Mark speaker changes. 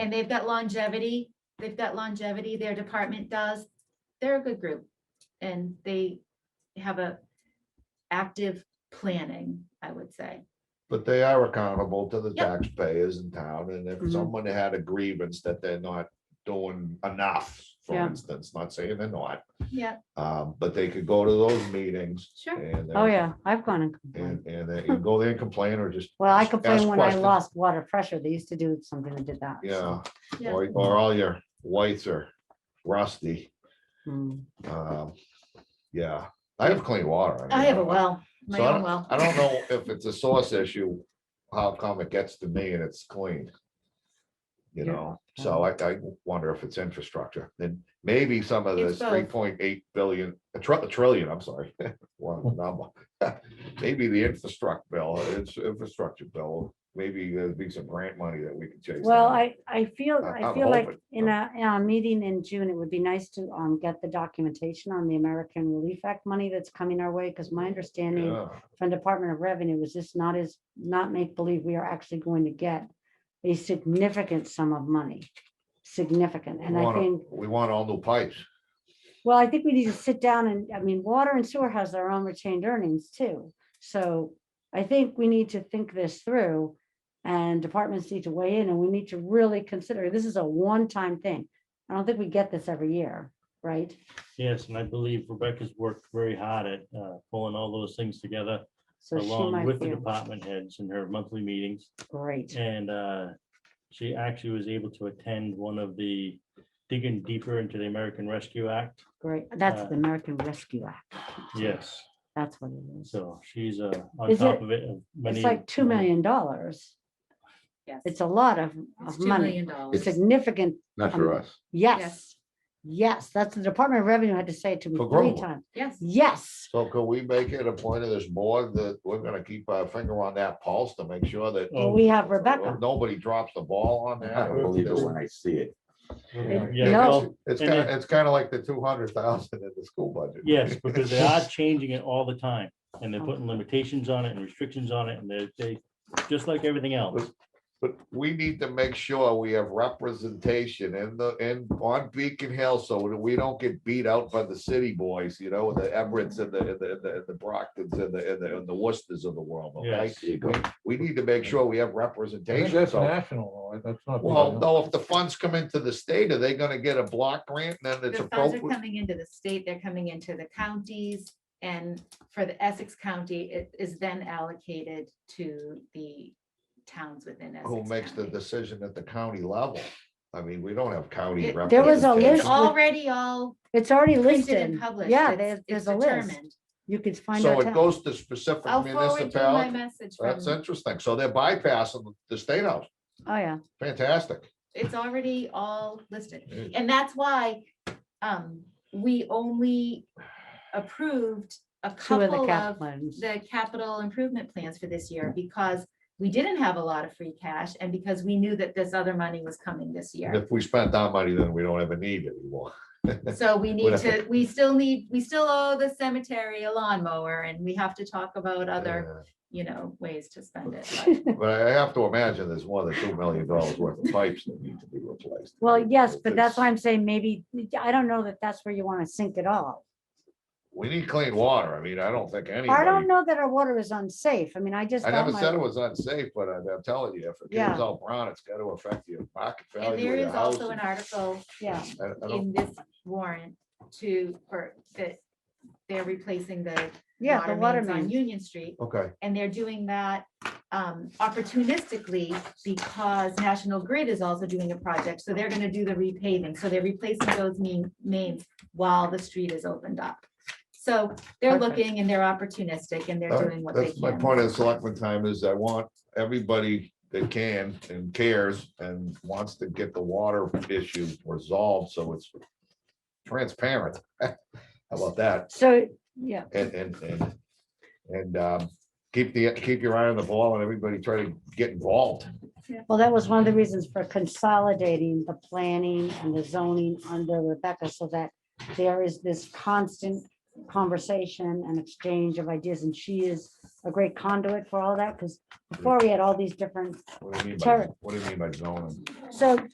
Speaker 1: And they've got longevity, they've got longevity, their department does. They're a good group and they have a active planning, I would say.
Speaker 2: But they are accountable to the
Speaker 1: Yep.
Speaker 2: taxpayers in town, and if
Speaker 3: Mhm.
Speaker 2: someone had a grievance that they're not doing enough, for
Speaker 3: Yeah.
Speaker 2: instance, not saying they're not,
Speaker 1: Yeah,
Speaker 2: um, but they could go to those meetings.
Speaker 1: sure.
Speaker 2: and,
Speaker 3: Oh,
Speaker 2: uh,
Speaker 3: yeah, I've gone and
Speaker 2: And,
Speaker 3: complained.
Speaker 2: and they- you go there and complain or just.
Speaker 3: Well, I
Speaker 2: ask-
Speaker 3: complained
Speaker 2: ask
Speaker 3: when I
Speaker 2: questions.
Speaker 3: lost water pressure. They used to do something that did that.
Speaker 2: Yeah,
Speaker 3: so,
Speaker 1: Yeah.
Speaker 2: or, or all your whites are rusty,
Speaker 3: mm.
Speaker 2: um, yeah, I have clean water. mean,
Speaker 1: I have a
Speaker 2: don't-
Speaker 1: well, my
Speaker 2: So I
Speaker 1: own
Speaker 2: don't,
Speaker 1: well.
Speaker 2: I don't know if it's a source issue, how come it gets to me and it's clean? You
Speaker 3: Yeah.
Speaker 2: know, so I, I wonder if it's infrastructure, then maybe some of
Speaker 1: It's
Speaker 2: this three
Speaker 1: both.
Speaker 2: point eight billion, a tr- a trillion, I'm sorry.
Speaker 3: Hmm.
Speaker 2: One number. Maybe the infrastructure bill, it's infrastructure bill, maybe there'd be some grant money that we could chase.
Speaker 3: Well,
Speaker 2: down.
Speaker 3: I, I feel,
Speaker 2: I-
Speaker 3: I
Speaker 2: I'm
Speaker 3: feel like
Speaker 2: hoping,
Speaker 3: in a, in a meeting in June, it would be nice to, um, get the documentation on the American Relief Act money that's coming our way. Cause my understanding
Speaker 2: Yeah.
Speaker 3: from Department of Revenue was this not as, not make believe we are actually going to get a significant sum of money. Significant. And
Speaker 2: We
Speaker 3: I
Speaker 2: wanna-
Speaker 3: think
Speaker 2: We want all new pipes,
Speaker 3: Well, I think we need to sit down and, I mean, water and sewer has their own retained earnings too. So I think we need to think this through. And departments need to weigh in and we need to really consider, this is a one-time thing. I don't think we get this every year, right?
Speaker 4: Yes, and I believe Rebecca's worked very hard at uh, pulling all those things together
Speaker 3: So she
Speaker 4: along
Speaker 3: might
Speaker 4: with the
Speaker 3: be
Speaker 4: department heads in her monthly meetings.
Speaker 3: great.
Speaker 4: And uh, she actually was able to attend one of the digging deeper into the American Rescue Act.
Speaker 3: Great. That's
Speaker 4: uh,
Speaker 3: the American Rescue Act.
Speaker 4: Yes,
Speaker 3: That's what it is.
Speaker 4: so she's uh, on
Speaker 3: Is
Speaker 4: top
Speaker 3: it-
Speaker 4: of it. of many-
Speaker 3: It's like $2 million.
Speaker 1: Yes.
Speaker 3: It's a lot of,
Speaker 1: It's
Speaker 3: of
Speaker 1: two
Speaker 3: money,
Speaker 1: million dollars.
Speaker 3: significant.
Speaker 2: not
Speaker 3: for
Speaker 2: us.
Speaker 3: Yes. Yes, that's the Department of Revenue had to say it to me
Speaker 2: For
Speaker 3: three
Speaker 2: Groveland.
Speaker 3: times.
Speaker 1: Yes,
Speaker 3: Yes.
Speaker 2: So could we make it a point of this board that we're gonna keep our finger on that pulse to make sure that
Speaker 3: Well,
Speaker 4: Oh,
Speaker 3: we have Rebecca.
Speaker 2: Nobody drops the ball on
Speaker 5: I
Speaker 2: that.
Speaker 5: don't believe it when I see it.
Speaker 4: yeah,
Speaker 3: No.
Speaker 4: well,
Speaker 2: It's
Speaker 4: And
Speaker 2: kind of, it's kind of like the two hundred thousand in the school budget.
Speaker 4: Yes, because they are changing it all the time and they're putting limitations on it and restrictions on it and they, they, just like everything else.
Speaker 2: But we need to make sure we have representation in the, in, on Beacon Hill, so that we don't get beat out by the city boys, you know, the Emirates and the, and the, and the- and the Brockton's and the, and the, and the Worcesters of the world, okay?
Speaker 4: Yes.
Speaker 5: There you go.
Speaker 2: We need to make sure we have
Speaker 6: I think
Speaker 2: representation,
Speaker 6: That's
Speaker 2: so.
Speaker 6: national, though. that's not.
Speaker 2: Well, no, if the funds come into the state, are they gonna get a block grant and then it's
Speaker 1: the funds are
Speaker 2: appropriate?
Speaker 1: coming into the state, they're coming into the counties. And for the Essex County, it is then allocated to the towns within Essex.
Speaker 2: Who makes the
Speaker 1: County.
Speaker 2: decision at the county level? I mean, we don't have county.
Speaker 1: It-
Speaker 3: there was a
Speaker 1: It's
Speaker 3: list-
Speaker 2: representation.
Speaker 1: already all
Speaker 3: It's already
Speaker 1: printed
Speaker 3: listed.
Speaker 1: and published.
Speaker 3: Yeah,
Speaker 1: It's-
Speaker 3: there's,
Speaker 1: it's
Speaker 3: there's a list.
Speaker 1: determined.
Speaker 3: You could find
Speaker 2: So
Speaker 3: out.
Speaker 2: it goes to specific
Speaker 1: I'll forward you my
Speaker 2: municipalities.
Speaker 1: message
Speaker 2: That's
Speaker 1: from-
Speaker 2: interesting. So they're bypassing the state house.
Speaker 3: Oh, yeah.
Speaker 2: Fantastic.
Speaker 1: it's already all listed.
Speaker 2: Yeah.
Speaker 1: And that's why um, we only approved a
Speaker 3: Two of the
Speaker 1: couple
Speaker 3: cap
Speaker 1: of
Speaker 3: plans.
Speaker 1: the capital improvement plans for this year because we didn't have a lot of free cash and because we knew that this other money was coming this
Speaker 2: And
Speaker 1: year.
Speaker 2: If we spent our money, then we don't ever need it anymore.
Speaker 1: So we need
Speaker 2: Whatever.
Speaker 1: to, we still need, we still owe the cemetery a lawnmower and we have to talk about other, you know, ways to spend it. but-
Speaker 2: Yeah, But I have to imagine there's more than two million dollars worth of pipes that need to be replaced.
Speaker 3: Well, yes, but that's why
Speaker 2: It's-
Speaker 3: I'm saying maybe, I don't know that that's where you want to sink it all.
Speaker 2: We need clean water. I mean, I don't think
Speaker 3: I don't
Speaker 2: anybody,
Speaker 3: know that our water is unsafe. I mean, I just.
Speaker 2: I
Speaker 3: got
Speaker 2: never
Speaker 3: my-
Speaker 2: said it was unsafe, but I'm I'm telling you, if it
Speaker 3: Yeah.
Speaker 2: gets all brown, it's got to affect your market
Speaker 1: And
Speaker 2: value
Speaker 1: there
Speaker 2: of your
Speaker 1: is
Speaker 2: house.
Speaker 1: also an
Speaker 2: and-
Speaker 1: article
Speaker 3: Yeah,
Speaker 2: I- I don't-
Speaker 1: in this warrant to, or that they're replacing the
Speaker 3: yeah, the water
Speaker 1: mains On
Speaker 3: main.
Speaker 1: Union Street.
Speaker 2: Okay,
Speaker 1: And they're doing that um, opportunistically because National Grid is also doing a project. So they're going to do the repaving. So they're replacing those main, mains while the street is opened up. So they're
Speaker 3: Perfect.
Speaker 1: looking and they're opportunistic and they're
Speaker 2: all right.
Speaker 1: doing what they
Speaker 2: that's
Speaker 1: can.
Speaker 2: my point of selectmen time is I want everybody that can and cares and wants to get the water issue resolved, so it's transparent. How about that?
Speaker 3: So, yeah,
Speaker 2: And, and, and, and, um, keep the, keep your eye on the ball and everybody try to get involved.
Speaker 3: well, that was one of the reasons for consolidating the planning and the zoning under Rebecca so that there is this constant conversation and exchange of ideas and she is a great conduit for all that because before we had all these different
Speaker 2: What do you mean by,
Speaker 3: Sure.
Speaker 2: what do you mean by zoning?
Speaker 3: So